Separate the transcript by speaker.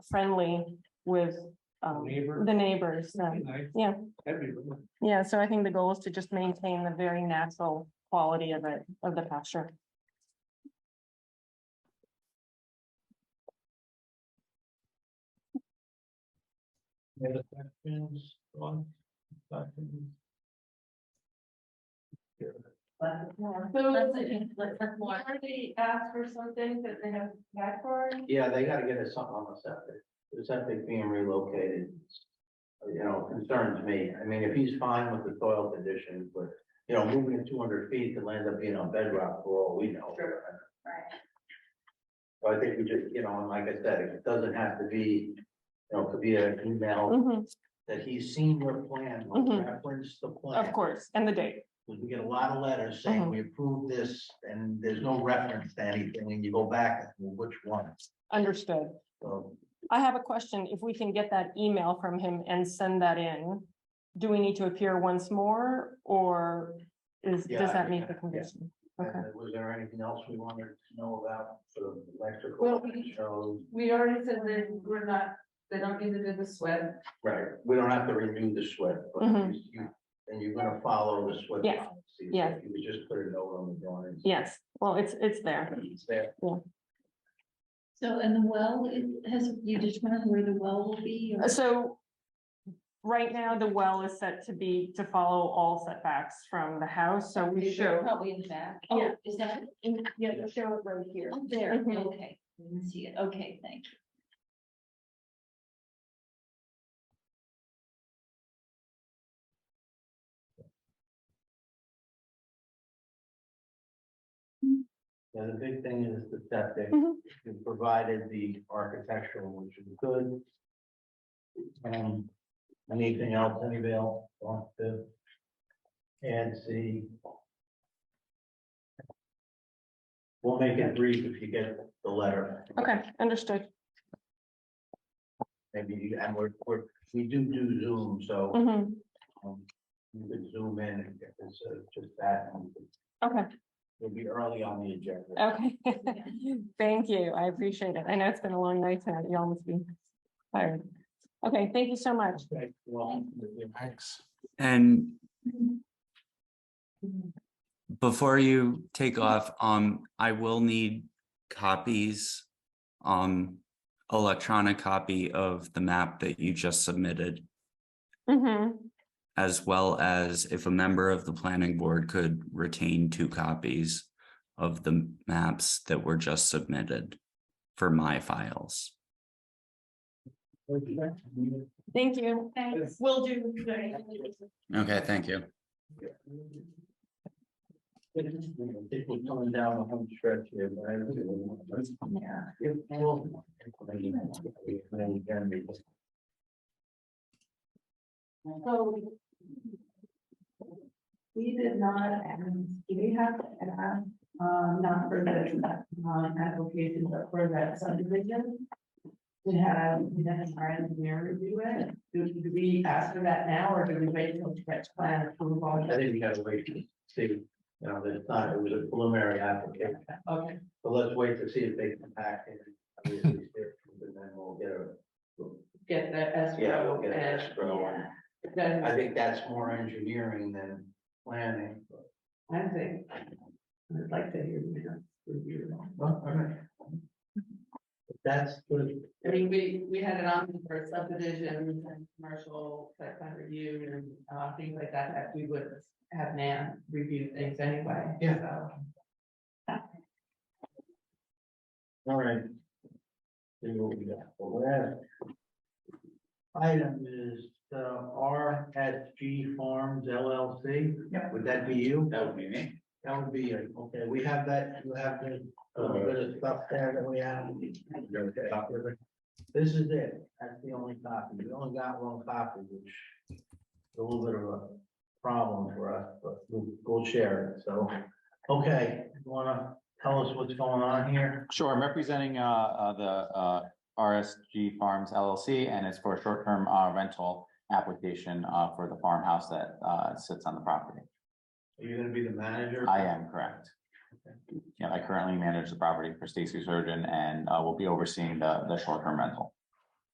Speaker 1: friendly with um,
Speaker 2: Neighbor.
Speaker 1: the neighbors. so, Yeah.
Speaker 2: That'd be really-
Speaker 1: Yeah, so I think the goal is to just maintain the very natural quality of it, of the pasture.
Speaker 2: Any other questions on document?
Speaker 3: So, they asked for something that they have back for?
Speaker 4: Yeah, they gotta get us something on the septic, the septic being relocated. You know, concerns me, I mean, if he's fine with the soil conditions, but, you know, moving it two hundred feet could end up being on bedrock for all we know. So I think we just, you know, and like I said, it doesn't have to be, you know, it could be an email
Speaker 1: Mhm,
Speaker 4: that he's seen your plan, like,
Speaker 1: Mhm.
Speaker 4: reference the plan.
Speaker 1: Of course, and the date.
Speaker 4: Because we get a lot of letters saying
Speaker 1: Mhm.
Speaker 4: we approve this, and there's no reference to anything, and you go back, well, which one?
Speaker 1: Understood.
Speaker 4: So,
Speaker 1: I have a question. If we can get that email from him and send that in, do we need to appear once more or is,
Speaker 4: Yeah,
Speaker 1: does
Speaker 4: I
Speaker 1: that
Speaker 4: think
Speaker 1: meet the
Speaker 4: that- yeah.
Speaker 1: condition?
Speaker 4: and
Speaker 1: Okay.
Speaker 4: uh, was there anything else we wanted to know about for
Speaker 3: Well,
Speaker 4: electrical?
Speaker 3: we-
Speaker 4: So,
Speaker 3: We already said that we're not, they don't need to do the sweat.
Speaker 4: right, we don't have to renew the SWIP, but
Speaker 1: Mhm.
Speaker 4: you- you, and you're gonna follow the SWIP.
Speaker 1: Yes,
Speaker 4: policy, so
Speaker 1: yes.
Speaker 4: You would just put it over on the drawings.
Speaker 1: Yes, well, it's, it's there.
Speaker 4: It's there.
Speaker 5: So, and the well, it has, you determined where the well will be? or-
Speaker 1: So right now, the well is set to be, to follow all setbacks from the house, so we show.
Speaker 5: Probably in the back.
Speaker 1: Yeah.
Speaker 5: Oh, is that, in-
Speaker 1: Yeah, show it right here.
Speaker 5: oh, there,
Speaker 1: Mhm.
Speaker 5: okay, I didn't see it, okay, thank you.
Speaker 4: Yeah, the big thing is the septic,
Speaker 1: Mhm.
Speaker 4: you provided the architectural, which is good. Um, anything else, anybody else want to? add? see. We'll make it brief if you get the letter,
Speaker 1: Okay, understood.
Speaker 4: maybe, you- and we're, we're, we do do Zoom, so.
Speaker 1: Mhm.
Speaker 4: um, You could zoom in and get this, uh, just that, and
Speaker 1: Okay,
Speaker 4: it'll be early on the agenda.
Speaker 1: okay. Thank you. I appreciate it. I know it's been a long night tonight. You almost be tired. Okay, thank you so much.
Speaker 4: Okay, well,
Speaker 2: Thanks.
Speaker 6: And before you take off, um, I will need copies. Um, electronic copy of the map that you just submitted,
Speaker 1: Mhm.
Speaker 6: as well as if a member of the planning board could retain two copies of the maps that were just submitted for my files.
Speaker 1: Thank you.
Speaker 5: Thanks.
Speaker 1: Will do.
Speaker 6: Okay, thank you.
Speaker 4: I think we're coming down the home stretch here, but I really don't want to- If we'll- Then we're gonna be-
Speaker 3: So. We did not, um, we have to add, um, not for that, um, application, but for that subdivision. To have, we have our engineer review it, do do we ask for that now, or do we wait until sketch plan approval?
Speaker 4: I think you gotta wait to see, you know, it's not, it was a preliminary application,
Speaker 3: Okay,
Speaker 4: so let's wait to see if they come back and. obviously, they're- And then we'll get a,
Speaker 3: get that escrow.
Speaker 4: yeah, we'll get an
Speaker 3: and-
Speaker 4: escrow. and
Speaker 3: Then,
Speaker 4: I think that's more engineering than planning. but-
Speaker 3: I think. I'd like to hear you review it.
Speaker 4: Well, all right. But That's good.
Speaker 3: I mean, we, we had it on for subdivision and commercial site plan review and, uh, things like that, that we would have Nan review things anyway.
Speaker 4: Yeah.
Speaker 3: so.
Speaker 4: All right. See what we got for that. Item is uh RSG Farms LLC.
Speaker 3: Yeah.
Speaker 4: Would that be you?
Speaker 7: That would be me.
Speaker 4: That would be you. Okay, we have that, you have the uh, bit of stuff there that we have. This is it. That's the only copy. We only got one copy, which is a little bit of a problem for us, but we'll, we'll share it. So, okay, you wanna tell us what's going on here?
Speaker 7: Sure, I'm representing uh, uh, the uh, RSG Farms LLC, and it's for a short-term uh, rental application uh, for the farmhouse that uh, sits on the property.
Speaker 4: Are you gonna be the manager?
Speaker 7: I am correct. Yeah, I currently manage the property for Stacy Surgeon and uh, will be overseeing the, the short-term rental.